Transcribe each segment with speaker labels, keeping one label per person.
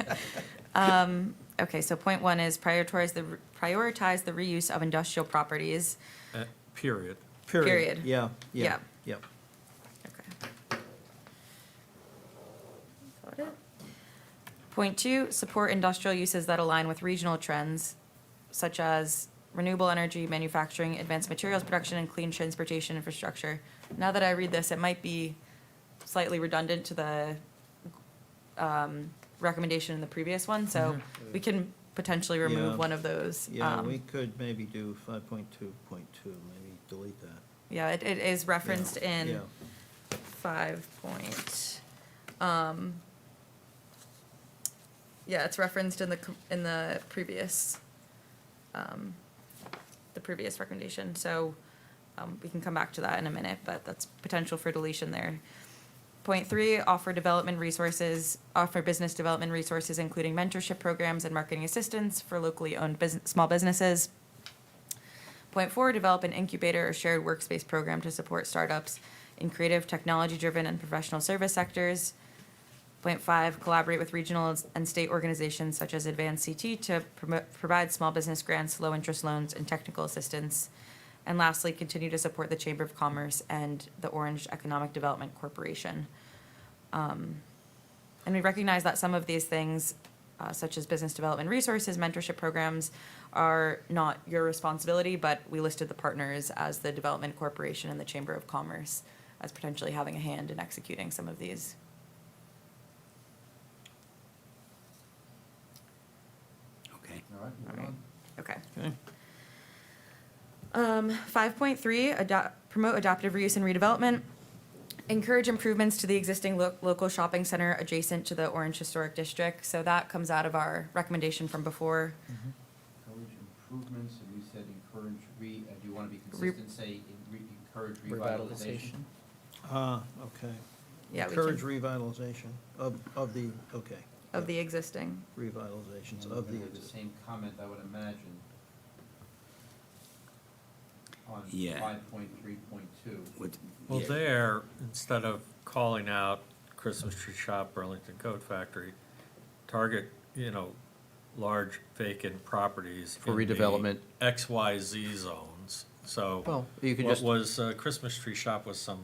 Speaker 1: Um, Okay, so point one is prioritize the, prioritize the reuse of industrial properties.
Speaker 2: Uh, Period.
Speaker 1: Period.
Speaker 3: Yeah, yeah,
Speaker 1: Yeah.
Speaker 3: yeah.
Speaker 1: Okay. Got it. Point two, support industrial uses that align with regional trends such as renewable energy, manufacturing, advanced materials production, and clean transportation infrastructure. Now that I read this, it might be slightly redundant to the um, recommendation in the previous one, so we can potentially
Speaker 3: Mm-hmm. Yeah.
Speaker 1: remove one of those.
Speaker 3: Yeah,
Speaker 1: um,
Speaker 3: we could maybe do five point two point two, maybe delete that. Yeah,
Speaker 1: Yeah, it, it is referenced in.
Speaker 3: yeah.
Speaker 1: five point, um, yeah, it's referenced in the, com- in the previous, um, the previous recommendation, so, um, we can come back to that in a minute, but that's potential for deletion there. Point three, offer development resources, offer business development resources, including mentorship programs and marketing assistance for locally owned business, small businesses. Point four, develop an incubator or shared workspace program to support startups in creative, technology-driven, and professional service sectors. Point five, collaborate with regional and state organizations such as Advanced CT to promote, provide small business grants, low-interest loans, and technical assistance. And lastly, continue to support the Chamber of Commerce and the Orange Economic Development Corporation. Um, And we recognize that some of these things, uh, such as business development resources, mentorship programs, are not your responsibility, but we listed the partners as the Development Corporation and the Chamber of Commerce as potentially having a hand in executing some of these.
Speaker 4: Okay.
Speaker 5: All right, moving on.
Speaker 1: Okay.
Speaker 3: Okay.
Speaker 1: Um, five point three, adopt, promote adaptive reuse and redevelopment. Encourage improvements to the existing lo- local shopping center adjacent to the Orange Historic District. So that comes out of our recommendation from before.
Speaker 5: Encourage improvements, and you said encourage re, uh, do you want to be
Speaker 1: Re-
Speaker 5: consistent, say en- re- encourage revitalization?
Speaker 3: Ah, okay.
Speaker 1: Yeah, we
Speaker 3: Encourage
Speaker 1: can-
Speaker 3: revitalization of, of the, okay.
Speaker 1: Of the existing.
Speaker 3: Revitalizations
Speaker 5: And
Speaker 3: of
Speaker 5: we're
Speaker 3: the,
Speaker 5: gonna do the
Speaker 3: exist-
Speaker 5: same comment, I would imagine, on
Speaker 4: Yeah.
Speaker 5: five point three point two.
Speaker 4: What-
Speaker 2: Well,
Speaker 4: yeah.
Speaker 2: there, instead of calling out Christmas Tree Shop, Burlington Coat Factory, target, you know, large vacant properties.
Speaker 6: For
Speaker 2: in the
Speaker 6: redevelopment.
Speaker 2: XYZ zones, so.
Speaker 6: Well, you can
Speaker 2: what
Speaker 6: just-
Speaker 2: was, uh, Christmas Tree Shop was some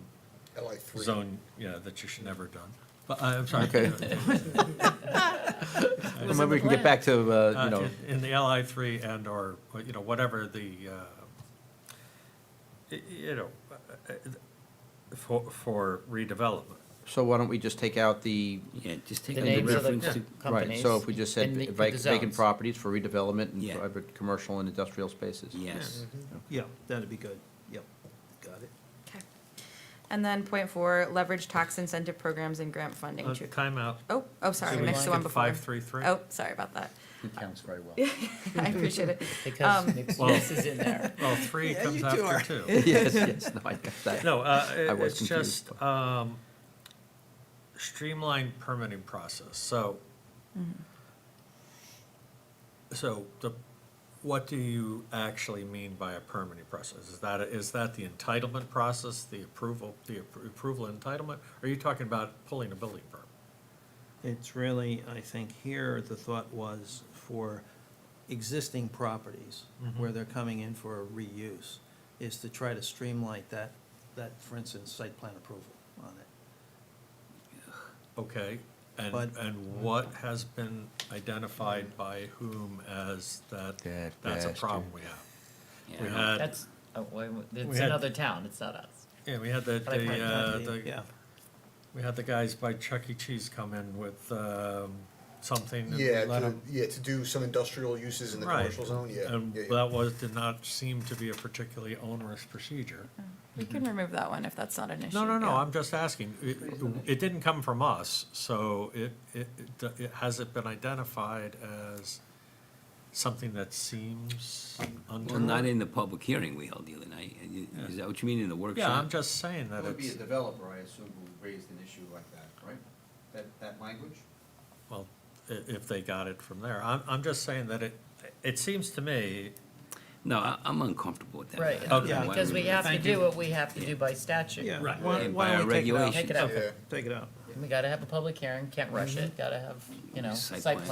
Speaker 7: LI three.
Speaker 2: zone, yeah, that you should never have done. But, I- I'm sorry.
Speaker 6: Okay.
Speaker 2: in
Speaker 6: Maybe we can get back to, uh, you
Speaker 2: Uh,
Speaker 6: know,
Speaker 2: in- In the LI three and or, uh, you know, whatever the, uh, y- you know, uh, uh, for, for redevelopment.
Speaker 6: so why don't we just take out the,
Speaker 4: Yeah, just take
Speaker 8: The
Speaker 4: out
Speaker 8: names of
Speaker 4: reference
Speaker 8: the
Speaker 4: to,
Speaker 6: right,
Speaker 8: companies.
Speaker 6: so if we just said
Speaker 8: and the- the
Speaker 6: vac- vacant
Speaker 8: zones.
Speaker 6: properties for redevelopment and
Speaker 4: Yeah.
Speaker 6: private commercial and industrial spaces?
Speaker 4: yes.
Speaker 3: yeah, that'd be good, yep, got it.
Speaker 1: Okay. And then point four, leverage tax incentive programs and grant funding
Speaker 2: Uh,
Speaker 1: to,
Speaker 2: Timeout.
Speaker 1: oh, oh, sorry, I
Speaker 2: Did we
Speaker 1: missed the one
Speaker 2: skip
Speaker 1: before.
Speaker 2: 533?
Speaker 1: Oh, sorry about that.
Speaker 4: He counts very well.
Speaker 1: I appreciate it.
Speaker 8: Because
Speaker 1: Um,
Speaker 8: mixed
Speaker 2: Well-
Speaker 8: use is in there.
Speaker 2: Well, Oh, three comes after two.
Speaker 6: Yes, yes, no, I got that.
Speaker 2: No, uh,
Speaker 6: I
Speaker 2: it-
Speaker 6: was
Speaker 2: it's
Speaker 6: confused.
Speaker 2: just, um, streamlined permitting process, so.
Speaker 6: Mm-hmm.
Speaker 2: So the, what do you actually mean by a permitting process? Is that, is that the entitlement process, the approval, the appro- approval entitlement? Or Are you talking about pulling a building permit?
Speaker 3: It's really, I think here, the thought was for existing properties
Speaker 6: Mm-hmm.
Speaker 3: where they're coming in for a reuse, is to try to streamline that, that, for instance, site plan approval on it.
Speaker 2: Okay, and,
Speaker 3: But-
Speaker 2: and what has been identified by whom as that,
Speaker 6: That
Speaker 2: that's a
Speaker 6: bastard.
Speaker 2: problem we have?
Speaker 4: Yeah.
Speaker 2: We had-
Speaker 8: That's, oh, wait, wait,
Speaker 2: uh, We
Speaker 8: it's
Speaker 2: had-
Speaker 8: another town, it's not us.
Speaker 2: Yeah, we had the,
Speaker 8: But I
Speaker 2: the,
Speaker 8: find
Speaker 2: uh,
Speaker 3: Yeah,
Speaker 2: the, we had the guys by Chuck E. Cheese come in with, um, something. and we
Speaker 7: Yeah,
Speaker 2: let
Speaker 7: to,
Speaker 2: 'em-
Speaker 7: yeah, to do some industrial uses in the
Speaker 2: Right.
Speaker 7: commercial zone, yeah.
Speaker 2: And
Speaker 7: yeah, yeah.
Speaker 2: that was, did not seem to be a particularly onerous procedure.
Speaker 1: We can remove that one if that's not an issue.
Speaker 2: Mm-hmm. No, no, no,
Speaker 1: yeah.
Speaker 2: I'm just asking, it, it didn't come from us, so it, it, it d- it, has it been identified as something that seems
Speaker 4: Well, not
Speaker 2: untoward?
Speaker 4: in the public hearing we held the other night. Uh, you- Is that what you mean in the workshop?
Speaker 2: Yeah, I'm just saying
Speaker 5: It
Speaker 2: that
Speaker 5: would be a
Speaker 2: it's,
Speaker 5: developer, I assume, who raised an issue like that, right? That, that language?
Speaker 2: well, i- if they got it from there, I'm, I'm just saying that it, it seems to me,
Speaker 4: No, I, I'm uncomfortable with that.
Speaker 8: Right,
Speaker 4: I don't know
Speaker 2: Okay.
Speaker 4: why
Speaker 8: because we have to
Speaker 2: Thank
Speaker 8: do
Speaker 2: you.
Speaker 8: what we have to do by statute.
Speaker 3: yeah.
Speaker 2: Right.
Speaker 3: Why-
Speaker 4: And
Speaker 3: why
Speaker 4: by
Speaker 3: don't
Speaker 4: our
Speaker 3: we take it out?
Speaker 4: regulations.
Speaker 8: Take it out.
Speaker 7: Yeah.
Speaker 3: Take it out.
Speaker 2: Mm-hmm.
Speaker 8: We gotta have a public hearing, can't rush it, gotta have, you know,
Speaker 4: Site
Speaker 8: site
Speaker 4: plan.